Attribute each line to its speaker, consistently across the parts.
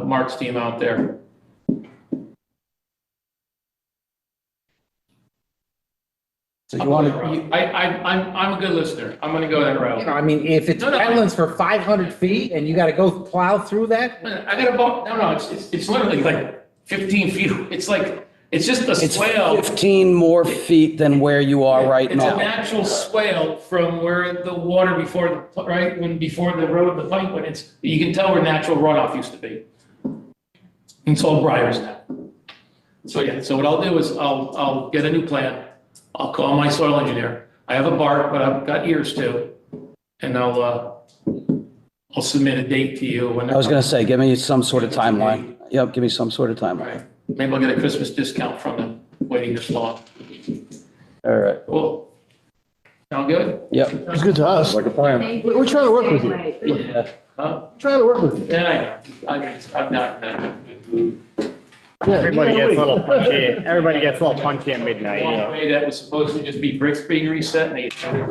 Speaker 1: Mark's team out there.
Speaker 2: So
Speaker 1: I,
Speaker 2: you want to,
Speaker 1: I, I'm, I'm a good listener. I'm gonna go that route.
Speaker 2: I mean, if it's
Speaker 1: No, no, I-
Speaker 2: wetlands for 500 feet and you got to go plow through that,
Speaker 1: I got a bump, no, no, it's, it's, it's literally like fifteen feet. It's like, it's just a
Speaker 3: It's
Speaker 1: swale.
Speaker 3: 15 more feet than where you are right
Speaker 1: It's a
Speaker 3: now.
Speaker 1: natural swale from where the water before, the right, when, before the road, the pipe went, it's, you can tell where natural runoff used to be. It's all briars now. So, yeah, so what I'll do is I'll, I'll get a new plan. I'll call my soil engineer. I have a bark, but I've got ears too. And I'll, uh, I'll submit a date to you when.
Speaker 3: I was going to say, give me some sort of timeline. Yep, give me some sort of timeline.
Speaker 1: Right, maybe I'll get a Christmas discount from them waiting this long.
Speaker 3: All right,
Speaker 1: Cool. Sound good?
Speaker 3: yep.
Speaker 4: It's good to us. Like a plan.
Speaker 5: Thank
Speaker 4: We- we're trying to work with you.
Speaker 5: Right.
Speaker 1: Yeah. Huh?
Speaker 4: Trying to work with you.
Speaker 1: Yeah, I know. I- I'm not, uh, no.
Speaker 4: Yeah.
Speaker 6: Everybody
Speaker 4: Yeah,
Speaker 6: gets a little
Speaker 4: we-
Speaker 6: punchy, everybody gets a little punchy at midnight, you know?
Speaker 1: Walkway that was supposed to just be bricks being reset and they.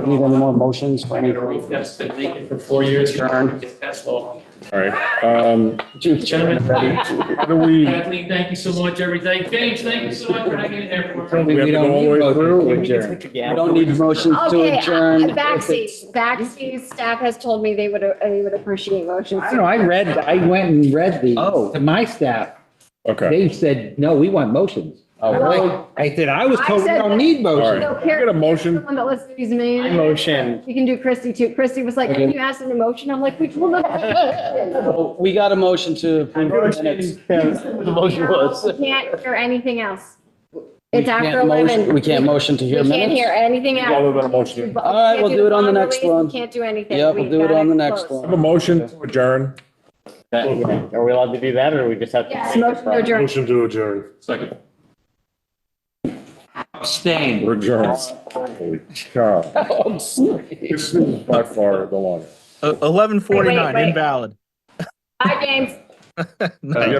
Speaker 3: Need any more motions?
Speaker 1: I need a roof that's been vacant for four years, that's all.
Speaker 7: All right, um,
Speaker 1: Gentlemen,
Speaker 7: how do we,
Speaker 1: Kathleen, thank you so much, everything. James, thank you so much for hanging in there for
Speaker 3: We
Speaker 1: me.
Speaker 7: have to
Speaker 3: don't
Speaker 7: go all
Speaker 3: need
Speaker 7: the way
Speaker 3: motions.
Speaker 7: through
Speaker 3: We
Speaker 7: with
Speaker 3: can
Speaker 7: Jerry?
Speaker 3: take- We don't need motions to
Speaker 5: Okay, uh,
Speaker 3: adjourn.
Speaker 5: Backseat, backseat staff has told me they would, uh, they would appreciate motions.
Speaker 2: I don't know, I read, I went and read these
Speaker 3: Oh.
Speaker 2: to my staff.
Speaker 7: Okay,
Speaker 2: They said, no, we want motions.
Speaker 3: Oh,
Speaker 2: I'm like- I said, I was told we
Speaker 5: I said
Speaker 2: don't need
Speaker 7: All
Speaker 2: motions.
Speaker 7: right.
Speaker 5: So Karen-
Speaker 7: Get a motion.
Speaker 5: Someone that listens to these names.
Speaker 6: I motion.
Speaker 5: You can do Christie too. Christie was like, can you ask an emotion? I'm like, we will not.
Speaker 3: So We got a motion to approve the minutes.
Speaker 4: The motion was.
Speaker 5: We Can't hear anything else. It's
Speaker 3: We
Speaker 5: after
Speaker 3: can't motion-
Speaker 5: 11.
Speaker 3: We can't motion to
Speaker 5: We
Speaker 3: hear
Speaker 5: can't hear
Speaker 3: minutes?
Speaker 5: anything
Speaker 7: Yeah,
Speaker 5: else.
Speaker 7: we're gonna motion.
Speaker 5: We
Speaker 7: it.
Speaker 5: can't
Speaker 3: All right, we'll
Speaker 5: the
Speaker 3: do it on the
Speaker 5: bond
Speaker 3: next
Speaker 5: release. We
Speaker 3: one.
Speaker 5: Can't do anything.
Speaker 3: Yeah, we'll
Speaker 5: We've
Speaker 3: do it
Speaker 5: got
Speaker 3: on the next
Speaker 5: closed.
Speaker 7: I
Speaker 3: one.
Speaker 7: Have a motion to adjourn.
Speaker 6: Are we allowed to do that, or we just have to?
Speaker 5: Yes, motion to adjourn.
Speaker 7: Motion to adjourn.
Speaker 1: Second.
Speaker 2: Abstain.
Speaker 7: We're adjourned. Holy cow.
Speaker 3: Oh, I'm sorry.
Speaker 7: This is by far the longest.
Speaker 8: Eleven forty-nine,
Speaker 5: wait.
Speaker 8: invalid.
Speaker 5: Bye, James.
Speaker 8: Nice.